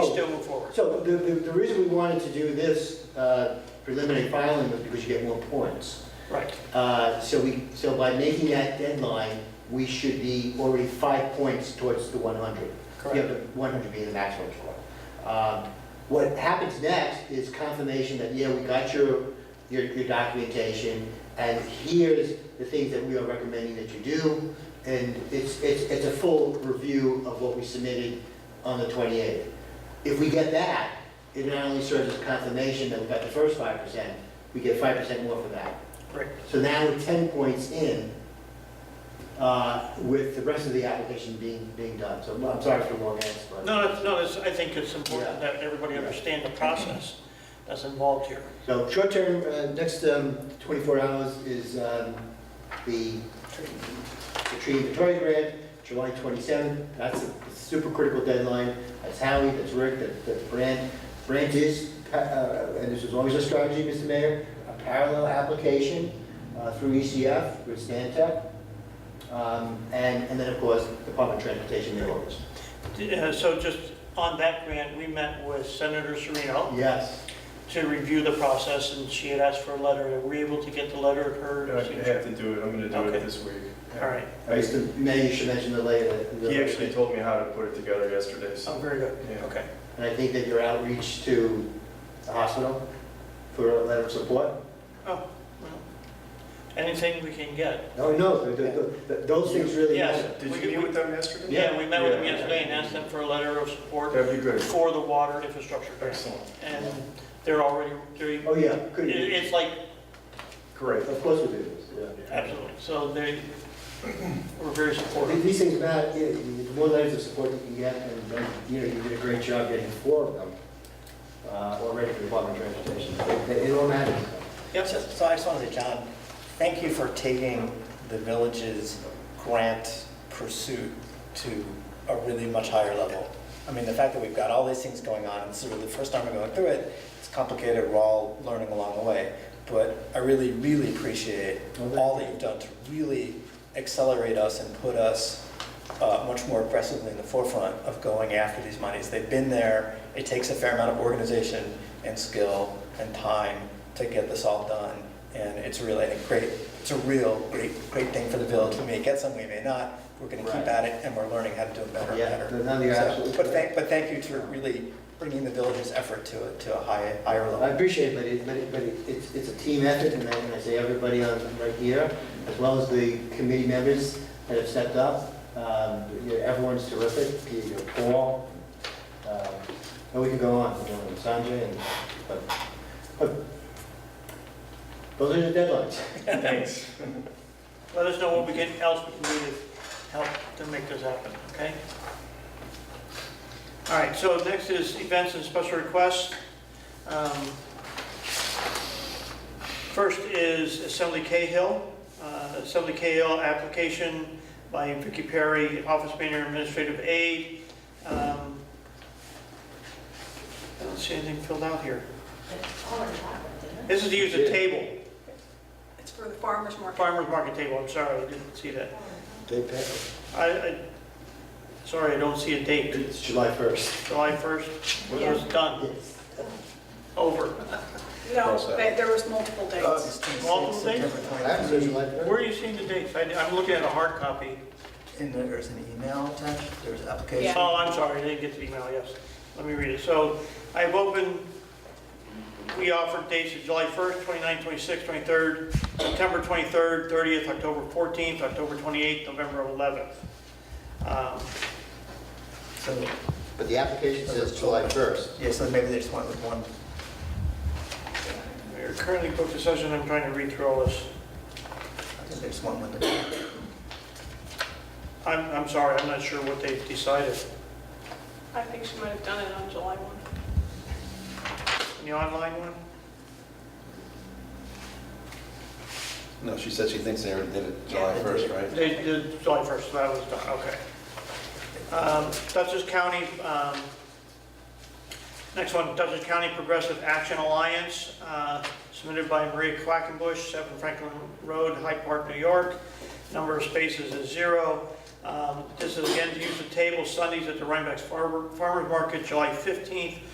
Oh. going forward. So the, the, the reason we wanted to do this uh, preliminary filing was because you get more points. Right. Uh, So we, so by making that deadline, we should be already five points towards the 100. You have Correct. the 100 being the maximum score. Um, What happens next is confirmation that, yeah, we got your, your your documentation, and here's the things that we are recommending that you do, and it's, it's, it's a full review of what we submitted on the 28th. If we get that, it not only serves as confirmation that we got the first 5%, we get 5% more for that. Great. So now we're 10 points in uh, with the rest of the application being, being done. So I'm sorry for the long answer, but. No, that's, no, that's, I think it's important Yeah. that everybody understand the process that's involved here. So short-term, uh, next um, 24 hours is um, the the tree inventory grant, July 27th. That's a super critical deadline. That's Howie, that's Rick, that- that's Brant. Brant is, pa- uh, and this is always a strategy, Mr. Mayor, a parallel application uh, through ECF with Stantec. Um, And, and then, of course, Department of Transportation, their orders. Uh, So just on that grant, we met with Senator Serino Yes. to review the process, and she had asked for a letter. Were we able to get the letter at her? I have signature? to do it, I'm gonna do Okay. it this week. All right. I- Mr. Mayor, you should mention the later. He actually told me how to put it together yesterday, Oh, so. very good. Yeah. Okay. And I think that your outreach to the hospital for a letter of support? Oh, well, anything we can get. No, no, th- th- th- those things really Yes. matter. Did you meet with them yesterday? Yeah, we met with them Yeah. yesterday and asked them for a letter of support That'd be good. for the water infrastructure grant. Excellent. And they're already, they're, it- Oh, yeah, could be. it's like, Great. Of course we do this, yeah. absolutely. So they were very Th- supportive. These things matter, yeah, the more letters of support you can get, and then, you know, you did a great job getting four of them uh, already for the Department of Transportation. It- It all matters. Yep. So so I just want to say, John, thank you for taking the village's grant pursuit to a really much higher level. I mean, the fact that we've got all these things going on, and this is really the first time we're going through it, it's complicated, we're all learning along the way. But I really, really appreciate all that you've done to really accelerate us and put us uh, much more aggressively in the forefront of going after these monies. They've been there. It takes a fair amount of organization and skill and time to get this all done. And it's really a great, it's a real great, great thing for the village. We may get some, we may not. We're going to keep Right. at it and we're learning how to do it better and Yeah, better. no, no, you're So- absolutely But correct. thank, but thank you to really bringing the village's effort to, a- to a high, higher I level. appreciate it, but it, but it, but it- it's, it's a team effort, and I, and I say everybody on, right here, as well as the committee members that have stepped up. Um, you know, everyone's terrific, Peter, you know, Paul, um, and we can go on, you know, and Sanjay, and, but, but, those are the deadlines. Thanks. Let us know what we can, else we can do to help to make this happen, okay? All right, so next is events and special requests. Um, First is Assembly Cahill. Uh, Assembly Cahill application by Vicky Perry, Office Manager Administrative Aid. Um, I don't see anything filled out here. This is to use a table, It's for the farmer's market. farmer's market table, I'm sorry, I didn't see that. They pay. I, I, sorry, I don't see a date. It's July first. July 1st, when it was done, Yes. over. Cross No, out. they- there was multiple dates. Multiple days? That's July Where first. are you seeing the dates? I, I'm looking at a hard copy. And there's an email attached, there's Yeah. application. Oh, I'm sorry, I didn't get the email, yes. Let me read it. So I've opened, we offered dates of July 1st, 29th, 26th, 23rd, September 23rd, 30th, October 14th, October 28th, November 11th. Um, So, But the application says July first. yeah, so maybe they just went with one We're currently booked a session, I'm trying to read through all this. I think there's one window. I'm, I'm sorry, I'm not sure what they've decided. I think she might have done it on July 1. The online one? No, she said she thinks they already did it July Yeah, they did. 1st, right? They did July 1st, so that was done, okay. Um, Dutchess County, um, next one, Dutchess County Progressive Action Alliance, uh, submitted by Maria Quackenbush, 7 Franklin Road, Hyde Park, New York. Number of spaces is zero. Um, This is again to use the table Sundays at the Rhinebeck Farmer- Farmers Market, July 15th